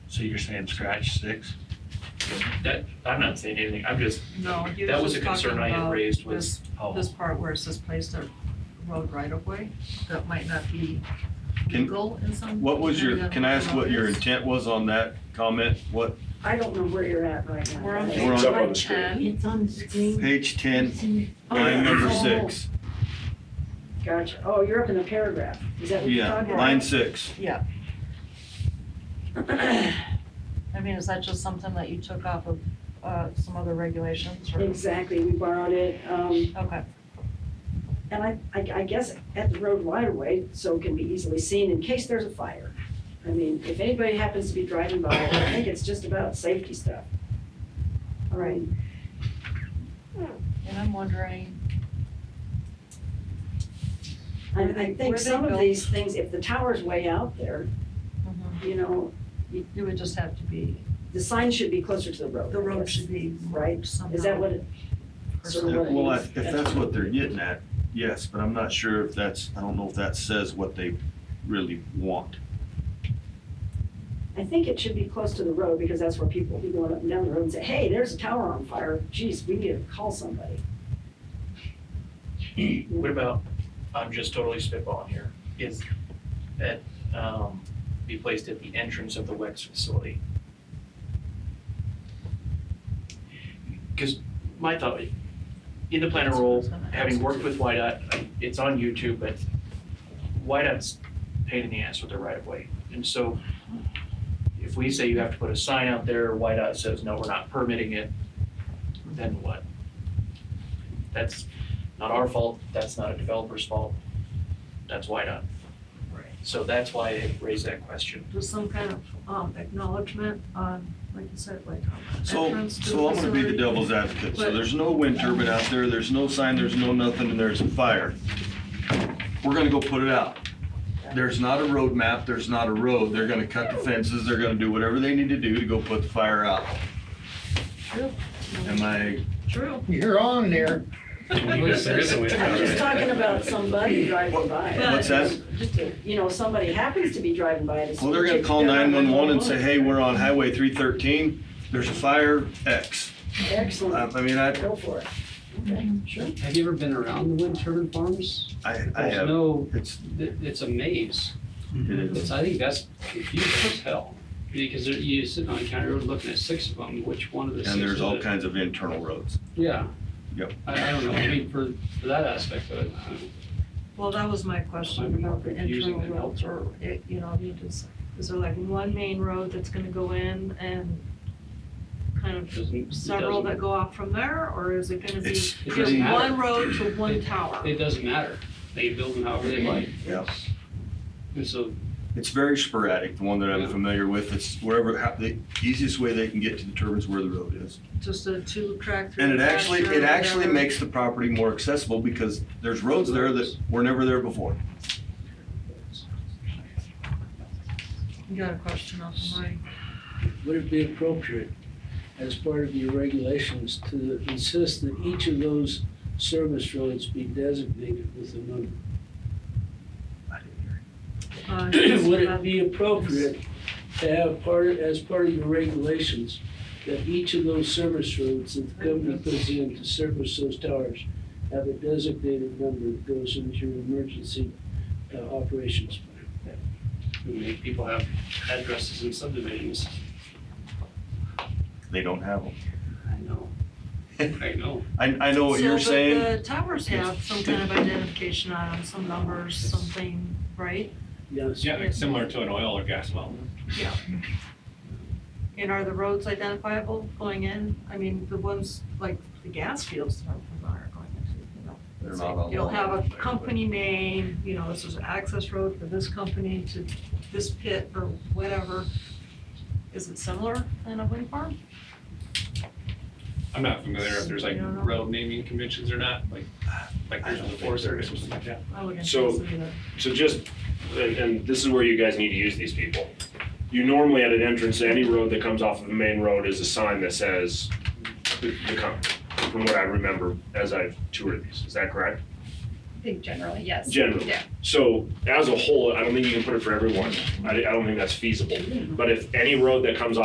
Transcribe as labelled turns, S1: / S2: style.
S1: So you're saying scratch six?
S2: That, I'm not saying anything, I'm just,
S3: No, he
S2: that was
S3: was
S2: a
S3: just talking
S2: concern I had
S3: about
S2: raised was,
S3: this,
S1: Oh,
S3: this part where it says place a road right of way, that might not be
S4: Can-
S3: legal in some.
S4: What was your,
S3: area
S4: can I ask what your
S3: of the
S4: intent was on that comment? What,
S5: I don't know where you're at right now.
S3: We're on
S4: We're
S3: page
S4: on-
S3: one ten,
S6: It's on the screen.
S4: page ten,
S6: It's in-
S4: line number
S5: Oh.
S4: six?
S5: Gotcha. Oh, you're up in the paragraph. Is that what you're
S4: Yeah,
S5: talking about?
S4: line six.
S7: I mean, is that just something that you took off of, uh, some other regulations or?
S5: Exactly, we borrowed it. Um,
S7: Okay,
S5: and I, I, I guess at the road right of way, so it can be easily seen in case there's a fire. I mean, if anybody happens to be driving by, I think it's just about safety stuff. All right,
S7: and I'm wondering,
S5: and I
S7: Where
S5: think
S7: they
S5: some of
S7: go.
S5: these things, if the tower's way out there, you know,
S3: it would just have to be,
S5: the sign should be closer to the road.
S3: the
S5: I
S3: road
S5: guess.
S3: should be
S5: Right,
S3: somehow.
S5: is that what it, sort of what it
S4: Well,
S5: is?
S4: if if that's what they're getting at, yes, but I'm not sure if that's, I don't know if that says what they really want.
S5: I think it should be close to the road because that's where people will be going up and down the road and say, hey, there's a tower on fire. Geez, we need to call somebody.
S2: what about, I'm just totally spitballing here, is that, um, be placed at the entrance of the WEX facility? Cause my thought, in the planner role, having worked with YDOT, I- it's on YouTube, but YDOT's pain in the ass with their right of way. And so if we say you have to put a sign out there, YDOT says, no, we're not permitting it, then what? That's not our fault, that's not a developer's fault, that's YDOT.
S3: Right.
S2: So that's why I raised that question.
S3: Just some kind of, um, acknowledgement on, like you said, like on the
S4: So,
S3: entrance to
S4: so I'm gonna be the
S3: facility.
S4: devil's advocate. So
S3: But-
S4: there's no wind turbine out there, there's no sign, there's no nothing, and there's a fire. We're gonna go put it out. There's not a road map, there's not a road. They're gonna cut the fences, they're gonna do whatever they need to do to go put the fire out. Am I,
S3: True,
S8: You're on there.
S5: I'm just talking about somebody driving by.
S4: what's that?
S5: Just a- You know, somebody happens to be driving by to.
S4: Well, they're gonna call nine-one-one and say, hey, we're on Highway three thirteen, there's a fire, X. I
S5: Excellent,
S4: I mean, I,
S5: go for it. Okay, sure.
S8: Have you ever been around the wind turbine farms?
S4: I, I
S8: There's
S4: have,
S8: no,
S4: it's,
S8: th- it's a maze.
S4: it is.
S8: It's, I think that's confusing as hell. Because there- you sit on a county road looking at six of them, which one of the six?
S4: And there's
S8: is
S4: all
S8: it?
S4: kinds of internal roads.
S8: Yeah.
S4: Yep.
S8: I, I don't know, I mean, for, for that aspect of it, uh, I-
S3: well, that was my question about the
S8: Using
S3: internal
S8: it
S3: roads or, it- you know, you just, is there like one main road that's gonna go in and kind of
S8: it doesn't, it
S3: several that
S8: doesn't-
S3: go off from there, or is it gonna be
S4: It's
S8: It
S3: from
S8: doesn't
S4: pretty,
S8: matter.
S3: one road to one tower?
S8: It doesn't matter. They build them however they like.
S4: Yeah.
S8: And so,
S4: it's very sporadic, the one that I'm
S8: Yeah.
S4: familiar with. It's wherever, hap- the easiest way they can get to determine is where the road is.
S3: Just a two track through.
S4: And it actually,
S3: pasture or
S4: it actually
S3: whatever.
S4: makes the property more accessible because there's roads there that were never there before.
S3: You got a question off the mic?
S9: Would it be appropriate, as part of your regulations, to insist that each of those service roads be designated with a number?
S3: Uh, yes,
S9: Would
S3: that-
S9: it be appropriate to have part, of- as part of your regulations, that each of those service roads that the company puts in to service those towers have a designated number that goes into your emergency uh, operations plan?
S8: we make people have addresses in subdivisions.
S4: They don't have them.
S8: I know. I know.
S4: I, I know what you're
S3: So,
S4: saying.
S3: but the towers have some kind of identification on them, some numbers, something, right?
S9: Yes.
S10: Yeah, like similar to an oil or gas well.
S3: And are the roads identifiable going in? I mean, the ones like the gas fields that are from there are going into, you know.
S4: They're not on.
S3: It'll
S4: the-
S3: have a company name, you know, this is an access road for this company to this pit or whatever. Is it similar in a wind farm?
S10: I'm not familiar if there's like
S3: Yeah.
S10: road naming conventions or not, like, like
S4: I
S10: there's
S4: don't
S10: a
S4: think
S10: forest
S4: there
S10: area or
S4: is.
S10: something like that.
S3: I wouldn't
S11: So-
S3: think so either.
S11: So just, and- and this is where you guys need to use these people. You normally at an entrance to any road that comes off of the main road is a sign that says the, the company, from what I remember as I've toured these, is that correct?
S6: think generally, yes.
S11: Generally.
S6: Yeah.
S11: So as a whole, I don't think you can put it for everyone. I, I don't think that's feasible. But if any road that comes off